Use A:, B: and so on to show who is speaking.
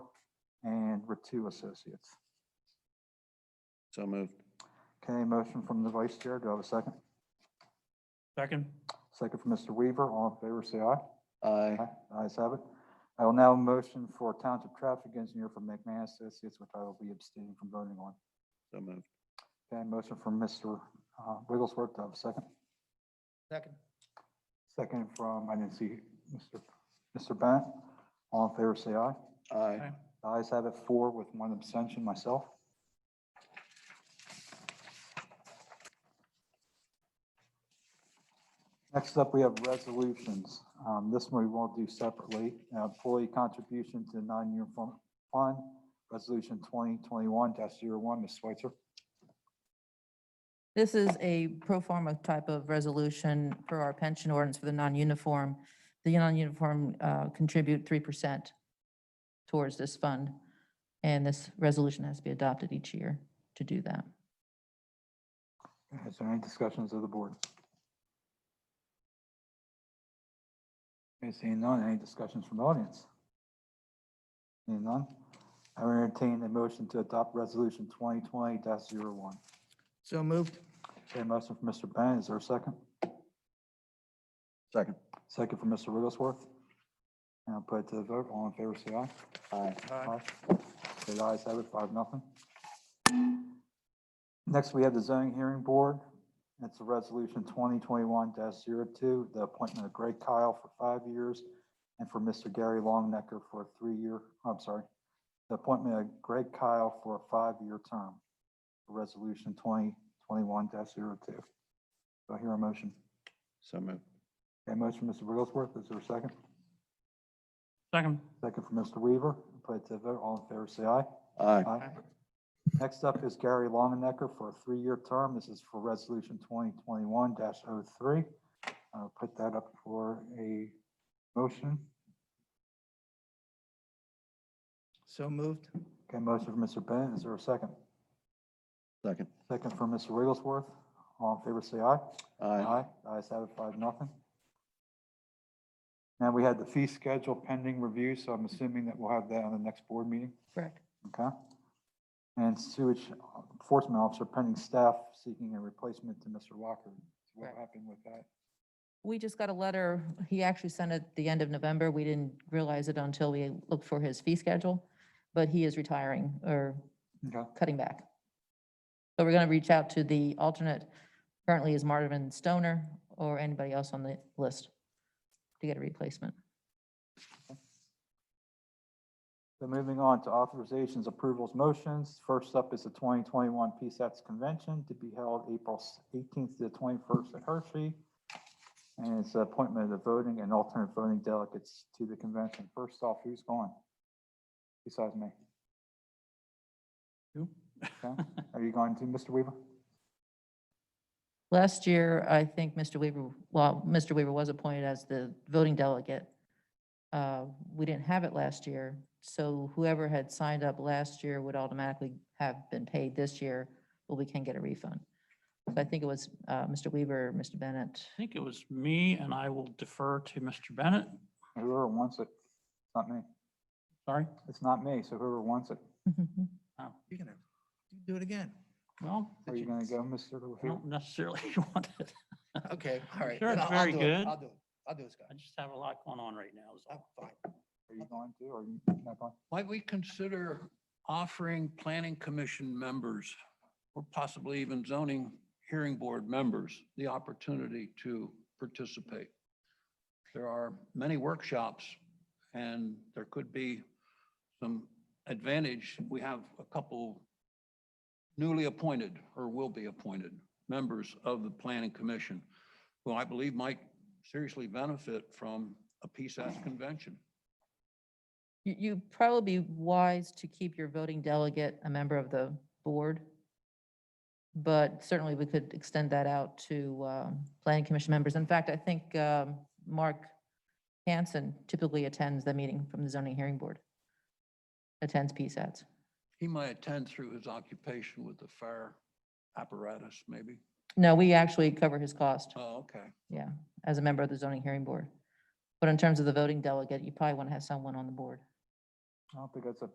A: number two associates.
B: So moved.
A: Okay, motion from the vice chair. Do I have a second?
C: Second.
A: Second from Mr. Weaver. All in favor, say aye.
B: Aye.
A: Aye, Ayes have it. I will now motion for Township Traffic Engineer for McMahon Associates, which I will be abstaining from voting on.
B: So moved.
A: Okay, motion from Mr. uh, Wigglesworth. Do I have a second?
C: Second.
A: Second from, I didn't see Mr. Mr. Bennett. All in favor, say aye.
B: Aye.
A: The Ayes have it four with one abstention, myself. Next up, we have resolutions. Um, This one we will do separately. Uh, Employee contribution to non-uniform fund, Resolution 2021-01, Ms. Switzer.
D: This is a pro forma type of resolution for our pension ordinance for the non-uniform. The non-uniform uh, contribute 3% towards this fund. And this resolution has to be adopted each year to do that.
A: Is there any discussions of the board? Okay, Seeing none, any discussions from the audience? Seeing none, I will entertain a motion to adopt resolution twenty twenty one
C: So moved.
A: Okay, motion from Mr. Bennett, is there a second?
B: Second.
A: Second from Mr. Wigglesworth. And I'll put it to the vote, all in favor, say aye.
B: Aye.
A: Uh,
C: Aye.
A: Okay, the ayes have it, five, nothing. Next, we have the zoning hearing board. It's a resolution twenty twenty-one 2 the appointment of Greg Kyle for five years and for Mr. Gary Longnecker for a three-year, I'm sorry, the appointment of Greg Kyle for a five-year term. Resolution twenty twenty-one 2 Do I hear a motion?
B: So moved.
A: Okay, motion, Mr. Wigglesworth, is there a second?
C: Second.
A: Second from Mr. Weaver. Put it to the vote, all in favor, say aye.
B: Aye.
A: Aye. Next up is Gary Longenecker for a three-year term. This is for Resolution 2021-03. I'll put that up for a motion.
C: So moved.
A: Okay, motion for Mr. Bennett. Is there a second?
B: Second.
A: Second for Mr. Wigglesworth. All in favor, say aye.
B: Aye.
A: Aye. Ayes have it, five, nothing. Now, we had the fee schedule pending review, so I'm assuming that we'll have that on the next board meeting.
D: Correct.
A: Okay. And sewage enforcement officer pending staff seeking a replacement to Mr. Lockard. What
D: Correct.
A: happened with that?
D: We just got a letter. He actually sent it the end of November. We didn't realize it until we looked for his fee schedule. But he is retiring or
A: Okay,
D: cutting back. So we're going to reach out to the alternate, currently is Marvin Stoner or anybody else on the list to get a replacement.
A: so moving on to authorizations, approvals, motions. First up is the 2021 PSATS convention to be held April 18th to the 21st at Hershey. And it's the appointment of the voting and alternate voting delegates to the convention. First off, who's going? Besides me.
C: Who?
A: Okay. Are you going to, Mr. Weaver?
D: Last year, I think Mr. Weaver, well, Mr. Weaver was appointed as the voting delegate. Uh, We didn't have it last year, so whoever had signed up last year would automatically have been paid this year, but we can get a refund. So I think it was uh, Mr. Weaver, Mr. Bennett.
C: I think it was me and I will defer to Mr. Bennett.
A: Whoever wants it. It's Not me.
C: Sorry.
A: It's not me, so whoever wants it.
E: You're gonna do it again.
C: Well,
A: Are you gonna go, Mr.
C: I
A: LaHoo?
C: don't necessarily want it.
E: Okay, all right.
C: sure
E: then
C: it's
E: I'll- I'll
C: very
E: do it.
C: good.
E: I'll do it. I'll do it, Scott.
C: I just have a lot going on right now. is
E: I'm
C: all.
E: fine.
A: Are you going to, or are you not going?
F: Might we consider offering planning commission members or possibly even zoning hearing board members the opportunity to participate? There are many workshops and there could be some advantage. We have a couple newly appointed or will be appointed members of the planning commission who I believe might seriously benefit from a PSAS convention.
D: You, you probably be wise to keep your voting delegate a member of the board. But certainly we could extend that out to um, planning commission members. In fact, I think um, Mark Hanson typically attends the meeting from the zoning hearing board. Attends PSATs.
F: He might attend through his occupation with the fire apparatus, maybe.
D: No, we actually cover his cost
F: Oh, okay.
D: as a member of the zoning hearing board. But in terms of the voting delegate, you probably want to have someone on the board.
A: I don't think that's a